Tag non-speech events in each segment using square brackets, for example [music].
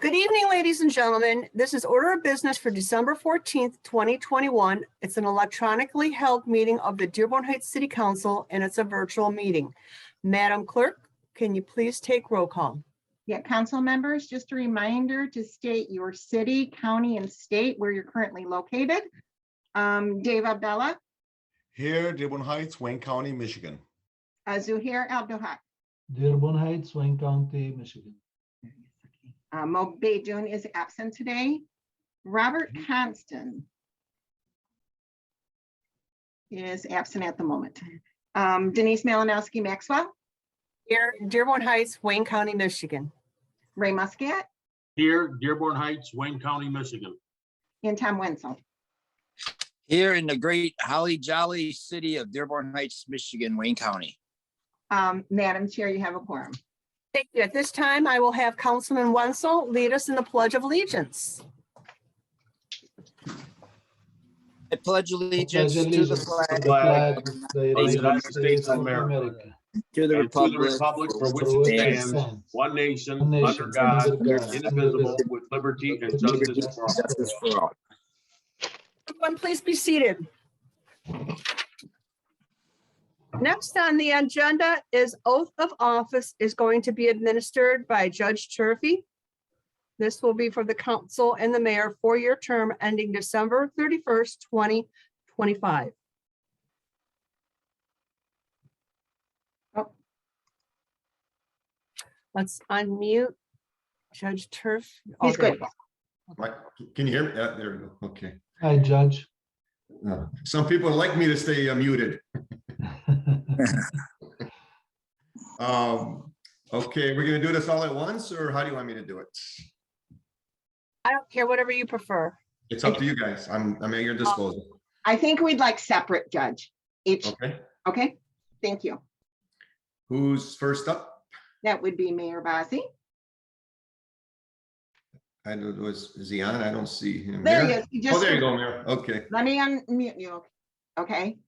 Good evening, ladies and gentlemen. This is order of business for December 14th, 2021. It's an electronically held meeting of the Dearborn Heights City Council, and it's a virtual meeting. Madam Clerk, can you please take roll call? Yeah, council members, just a reminder to state your city, county, and state where you're currently located. Um, Dave Abdallah, Here, Dearborn Heights, Wayne County, Michigan. uh, Zuhair Abdulhak, Dearborn Heights, Wayne County, Michigan. uh, Mo Bejun is absent today. Robert Conston is absent at the moment. Um, Denise Malinowski Maxwell, Here, Dearborn Heights, Wayne County, Michigan. Ray Muscat, Here, Dearborn Heights, Wayne County, Michigan. and Tom Wenzel. Here in the great holly jolly city of Dearborn Heights, Michigan, Wayne County. Um, Madam Chair, you have a quorum. Thank you. At this time, I will have Councilman Wenzel lead us in the Pledge of Allegiance. I pledge allegiance Pledge to the allegiance flag, flag of the United States of America, to the And to the republic, republic for which for which it it stands, stands, one nation, one nation, under God, under God, indivisible, with liberty and justice for all. justice for all. Everyone, please be seated. Next on the agenda is oath of office is going to be administered by Judge Turfy. This will be for the council and the mayor, four-year term ending December thirty-first, twenty twenty-five. Oh. Let's unmute Judge Turf. He's good. Right, can you hear me? Yeah, there we go. Okay. I judge. Uh, Some people like me to stay uh, muted. [laughs] Um, okay, we're gonna do this all at once, or how do you want me to do it? I don't care, whatever you prefer. It's up to you guys. I'm, I'm at your disposal, I think we'd like separate judge each, okay? okay? Thank you. Who's first up? That would be Mayor Bazey. I know it was, is he on? I don't see him. There he Mayor? is. You Oh, just, there you go, Mayor. Okay, let me unmute you. Okay,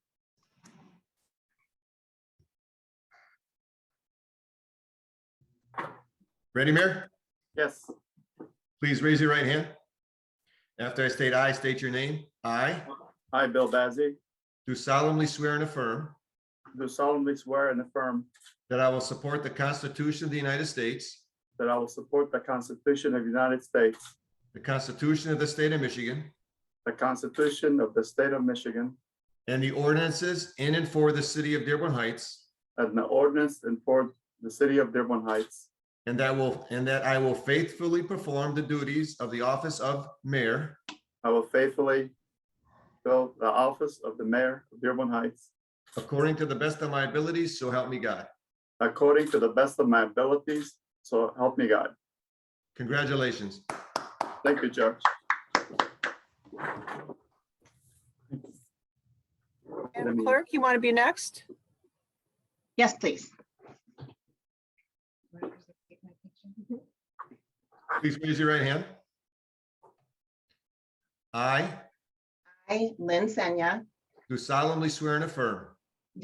ready, Mayor? Yes. Please raise your right hand. After I state aye, state your name. I I, Bill Bazey, do solemnly swear and affirm do solemnly swear and affirm that I will support the Constitution of the United States, that I will support the Constitution of the United States, the Constitution of the State of Michigan, the Constitution of the State of Michigan, And the ordinances in and for the city of Dearborn Heights. and the ordinance and for the city of Dearborn Heights, And that will, and that I will faithfully perform the duties of the office of mayor I will faithfully fill the office of the mayor of Dearborn Heights according to the best of my abilities, so help me God. according to the best of my abilities, so help me God. Congratulations. Thank you, Judge. Madam Clerk, you want to be next? yes, please. Please raise your right hand. I I, Lynn Senya, do solemnly swear and affirm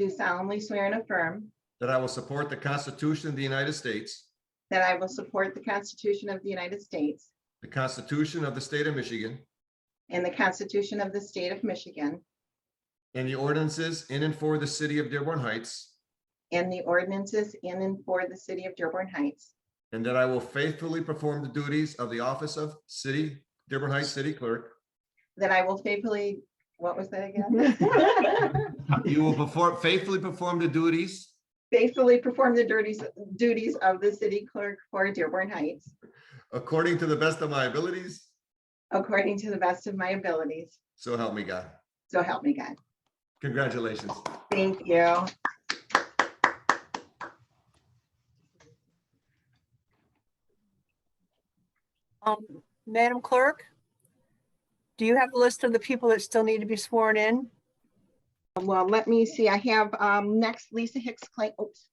do solemnly swear and affirm that I will support the Constitution of the United States, that I will support the Constitution of the United States the Constitution of the State of Michigan, and the Constitution of the State of Michigan and the ordinances in and for the city of Dearborn Heights, and the ordinances in and for the city of Dearborn Heights, And that I will faithfully perform the duties of the office of city, Dearborn Heights City Clerk. that I will faithfully, what was that [laughs] again? You will perform, faithfully perform the duties Faithfully perform the duties, duties of the city clerk for Dearborn Heights according to the best of my abilities, according to the best of my abilities. so help me God. So help me God. Congratulations. Thank you. Um, Madam Clerk? Do you have a list of the people that still need to be sworn in? Well, let me see. I have um, next Lisa Hicks Clay. Oops,